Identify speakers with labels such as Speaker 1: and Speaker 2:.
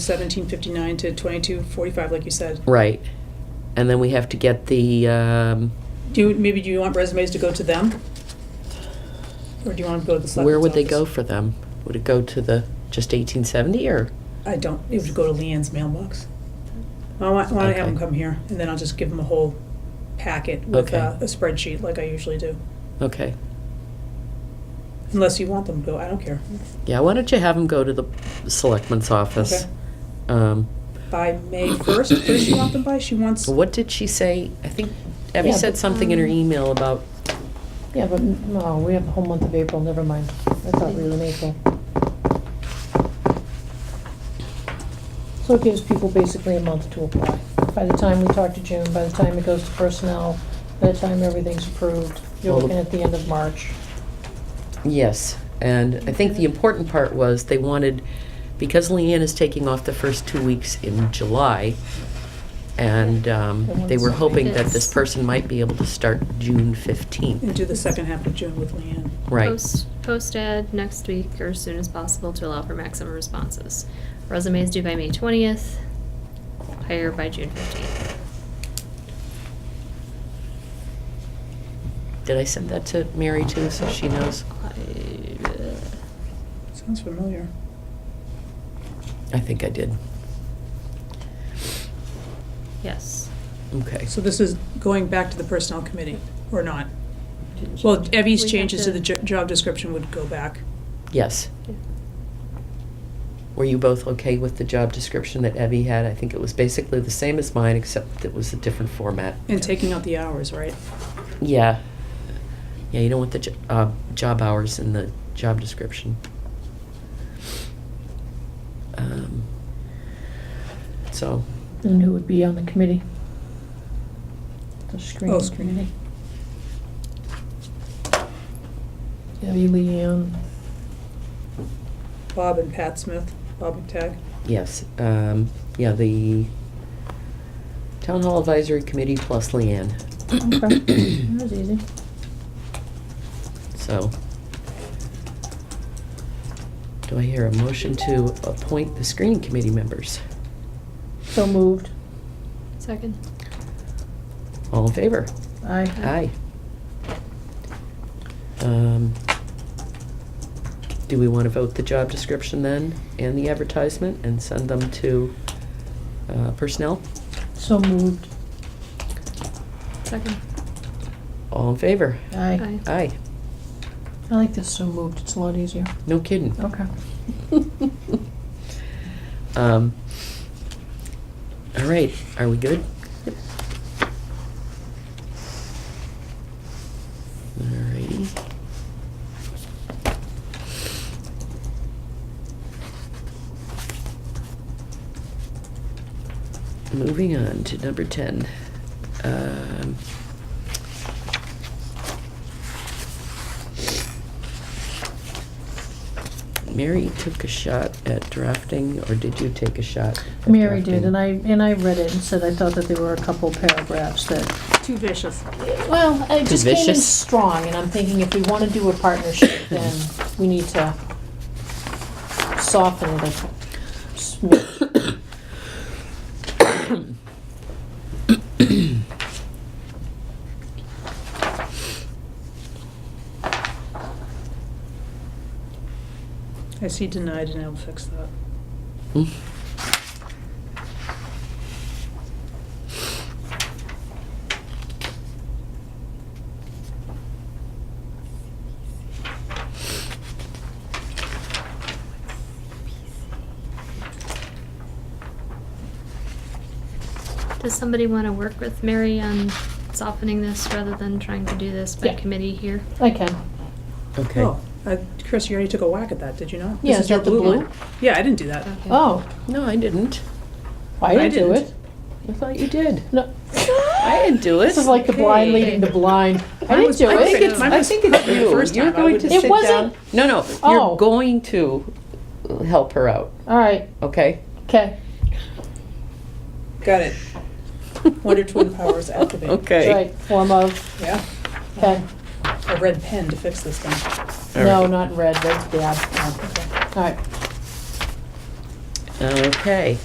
Speaker 1: 1759 to 2245, like you said.
Speaker 2: Right. And then we have to get the, um,
Speaker 1: Do you, maybe do you want resumes to go to them? Or do you want to go to the selectmen's
Speaker 2: where would they go
Speaker 1: office?
Speaker 2: for them? Would it go to the, just 1870 or?
Speaker 1: I don't, it would go to Leanne's mailbox. I want, I want to have them
Speaker 2: Okay.
Speaker 1: come here, and then I'll just give them a whole packet with
Speaker 2: Okay.
Speaker 1: uh, a spreadsheet like I usually do.
Speaker 2: Okay.
Speaker 1: Unless you want them to go, I don't care.
Speaker 2: Yeah, why don't you have them go to the selectman's office?
Speaker 1: Okay.
Speaker 2: Um,
Speaker 1: By May 1st, does she want them by? She wants,
Speaker 2: What did she say? I think Abby
Speaker 3: Yeah,
Speaker 2: said
Speaker 3: but,
Speaker 2: something in her
Speaker 3: um,
Speaker 2: email about,
Speaker 3: Yeah, but, mm, no, we have a whole month of April, never mind. I thought we were in April. So it gives people basically a month to apply. By the time we talk to June, by the time it goes to personnel, by the time everything's approved, you're
Speaker 2: Well, the-
Speaker 3: looking at the end of March.
Speaker 2: yes. And I think the important part was they wanted, because Leanne is taking off the first two weeks in July, and um, they were hoping that this person might be able to start June 15th.
Speaker 1: and do the second half of June with Leanne.
Speaker 2: Right.
Speaker 4: Post, post ad next week or as soon as possible to allow for maximum responses. Resumes due by May twentieth, hire by June fifteenth.
Speaker 2: Did I send that to Mary too, so she knows?
Speaker 4: Uh,
Speaker 1: Sounds familiar.
Speaker 2: I think I did.
Speaker 4: Yes.
Speaker 2: Okay.
Speaker 1: So this is going back to the personnel committee, or not? Well, Evie's
Speaker 4: We have
Speaker 1: changes to
Speaker 4: to-
Speaker 1: the jo- job description would go back.
Speaker 2: Yes. Were you both okay with the job description that Evie had? I think it was basically the same as mine, except it was a different format.
Speaker 1: And taking out the hours, right?
Speaker 2: Yeah. Yeah, you don't want the jo- uh, job hours in the job description. Um, So,
Speaker 3: And who would be on the committee? The
Speaker 1: Oh,
Speaker 3: screening
Speaker 1: screening.
Speaker 3: committee. Debbie, Leanne,
Speaker 1: Bob and Pat Smith, Bob McTagg.
Speaker 2: yes, um, yeah, the Town Hall Advisory Committee plus Leanne,
Speaker 3: okay, that was easy.
Speaker 2: so. Do I hear a motion to appoint the screening committee members?
Speaker 3: So moved,
Speaker 4: Second.
Speaker 2: All in favor?
Speaker 3: aye.
Speaker 2: Aye. Um, Do we want to vote the job description then and the advertisement and send them to uh, personnel?
Speaker 3: So moved,
Speaker 4: Second.
Speaker 2: All in favor?
Speaker 3: aye.
Speaker 4: Aye.
Speaker 2: Aye.
Speaker 3: I like this so moved, it's a lot easier.
Speaker 2: No kidding.
Speaker 3: Okay.
Speaker 2: Um, All right, are we good? All righty. Moving on to number 10. Um, Mary took a shot at drafting, or did you take a shot? at
Speaker 3: Mary did,
Speaker 2: drafting?
Speaker 3: and I, and I read it and said I thought that there were a couple paragraphs that,
Speaker 1: Too vicious.
Speaker 3: well, it just came in
Speaker 2: vicious.
Speaker 3: strong, and I'm thinking if we wanna do a partnership, then we need to soften it up. smidge.
Speaker 1: I see denied and I'll fix that.
Speaker 2: Mm.
Speaker 4: Does somebody want to work with Mary on softening this rather than trying to do this by
Speaker 3: Yeah.
Speaker 4: committee here?
Speaker 3: I can,
Speaker 2: Okay.
Speaker 1: Oh, uh, Chris, you already took a whack at that, did you not?
Speaker 3: Yeah,
Speaker 1: This
Speaker 3: is
Speaker 1: your
Speaker 3: that the blue?
Speaker 1: one. Yeah, I didn't do that.
Speaker 4: Okay.
Speaker 3: oh,
Speaker 2: No, I didn't.
Speaker 3: I
Speaker 1: I
Speaker 3: didn't do
Speaker 1: didn't.
Speaker 3: it,
Speaker 2: I thought you did.
Speaker 3: no.
Speaker 2: I didn't do it.
Speaker 3: This is like the blind
Speaker 4: Okay.
Speaker 3: leading the blind, I
Speaker 1: Mine
Speaker 3: didn't
Speaker 1: was
Speaker 3: do
Speaker 2: I think
Speaker 3: it,
Speaker 1: perfect.
Speaker 2: it's,
Speaker 1: Mine
Speaker 2: I
Speaker 1: was
Speaker 2: think it's
Speaker 1: perfect the
Speaker 2: you.
Speaker 1: first
Speaker 2: you're
Speaker 1: time. I
Speaker 2: going to
Speaker 1: wouldn't-
Speaker 2: sit
Speaker 3: It
Speaker 2: down.
Speaker 3: wasn't-
Speaker 2: No, no.
Speaker 3: Oh.
Speaker 2: You're going to help her out.
Speaker 3: alright,
Speaker 2: Okay.
Speaker 3: okay,
Speaker 1: Got it. Wonder Twin Powers activate.
Speaker 2: Okay.
Speaker 3: right, form of,
Speaker 1: Yeah,
Speaker 3: okay,
Speaker 1: a red pen to fix this thing.
Speaker 2: All
Speaker 3: no,
Speaker 2: right.
Speaker 3: not in red, that's bad, alright,
Speaker 2: Okay.